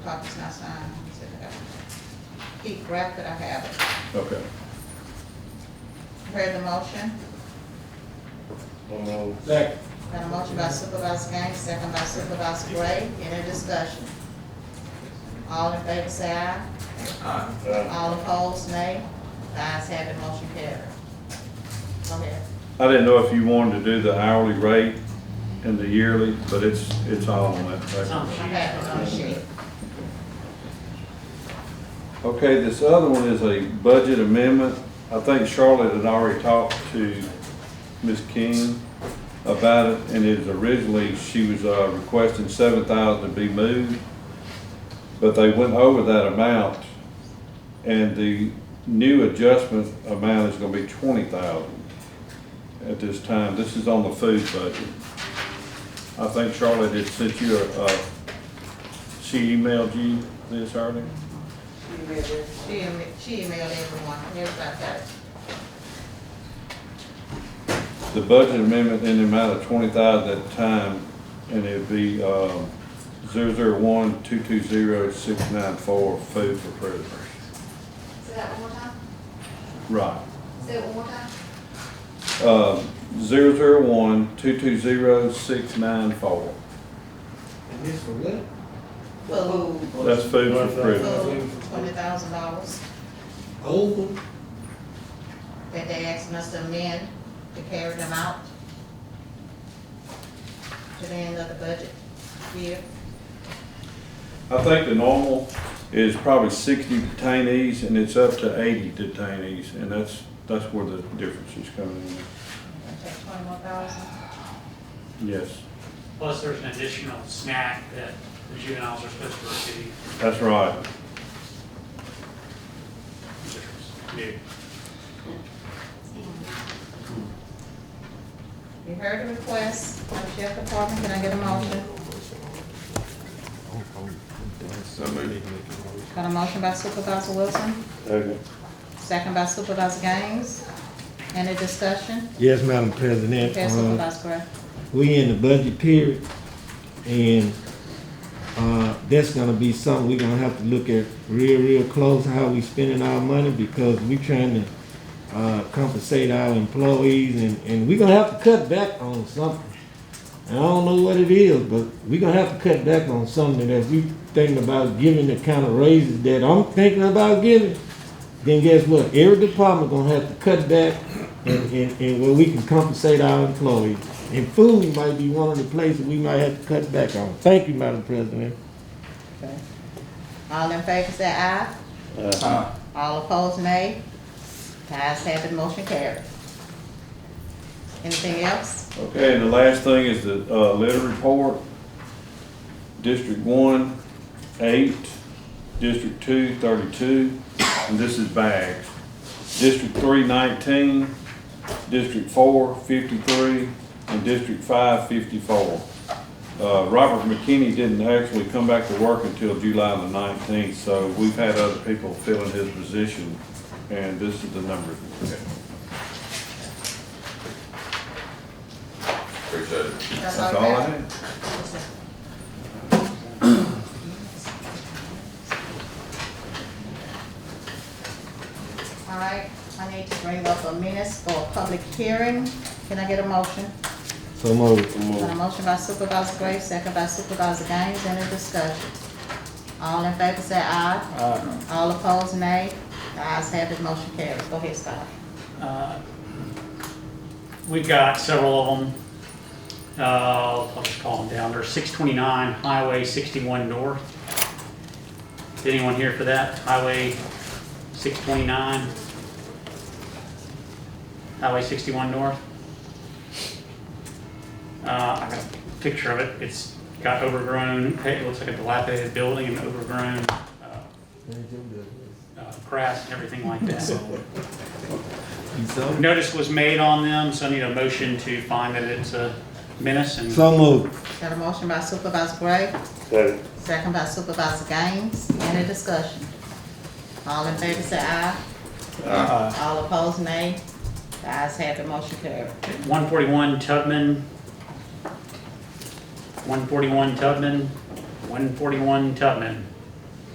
Copy's not signed, he said, "No." He grabbed it, I have it. Okay. Heard the motion? Second. Got a motion by Supervisor Gaines, second by Supervisor Gray, any discussion? All in favor say aye. All opposed, nay. The ayes have it, motion carried. Go ahead. I didn't know if you wanted to do the hourly rate and the yearly, but it's, it's all on that. I paper. have it on the sheet. Okay, this other one is a budget amendment. I think Charlotte had already talked to Ms. King about it, and it was originally, she was uh, requesting seven thousand to be moved, but they went over that amount, and the new adjustment amount is gonna be twenty thousand at this time. This is on the food budget. I think Charlotte had sent you a, uh, she emailed you this earlier? She em- she emailed everyone, everybody got it. the budget amendment in the amount of twenty thousand at the time, and it'd be, um, zero zero one two two zero six nine four, food for prisoners. Say that one more time. Right. Say it one more time. Um, zero zero one two two zero six nine four, And this for what? Food, that's food for prisoners. food, twenty thousand dollars Over. that they asking us to amend to carry them out to the end of the budget year. I think the normal is probably sixty detainees, and it's up to eighty detainees, and that's, that's where the difference is coming in. Take twenty-one thousand. Yes, Plus, there's an additional snack that the juveniles are supposed to receive, that's right. which is new. You heard the request from the Sheriff Department, can I get a motion? Got a motion by Supervisor Wilson, Okay. second by Supervisor Gaines. Any discussion? Yes, Madam President, Okay, uh, Supervisor Gray. we in the budget period, and, uh, that's gonna be something we're gonna have to look at real, real close, how we spending our money, because we trying to, uh, compensate our employees, and, and we gonna have to cut back on something. And I don't know what it is, but we gonna have to cut back on something that if we thinking about giving the kind of raises that I'm thinking about giving, then guess what? Every department gonna have to cut back and, and, and where we can compensate our employees. And food might be one of the places we might have to cut back on. Thank you, Madam President. All in favor say aye. All opposed, nay. The ayes have it, motion carried. Anything else? Okay, and the last thing is the, uh, letter report. District one, eight, District two, thirty-two, and this is bags. District three, nineteen, District four, fifty-three, and District five, fifty-four. Uh, Robert McKinney didn't actually come back to work until July the nineteenth, so we've had other people fill in his position, and this is the number. Appreciate it. That's That's all you I got? have. All right, I need to bring up a minutes for a public hearing. Can I get a motion? So moved. Got a motion by Supervisor Gray, second by Supervisor Gaines, any discussion? All in favor say aye. Aye. All opposed, nay. The ayes have it, motion carries. Go ahead, Scott. Uh, We've got several of them. Uh, I'll just call them down. There's 629 Highway 61 North. Is anyone here for that? Highway 629? Highway 61 North? Uh, I got a picture of it. It's got overgrown, it looks like a dilapidated building and overgrown uh, uh, grass and everything like that. Notice was made on them, so I need a motion to find that it's a menace and So moved. Got a motion by Supervisor Gray, second by Supervisor Gaines, any discussion? All in favor say aye. Aye. All opposed, nay. The ayes have it, motion carries. one forty-one Tubman, one forty-one Tubman, one forty-one Tubman.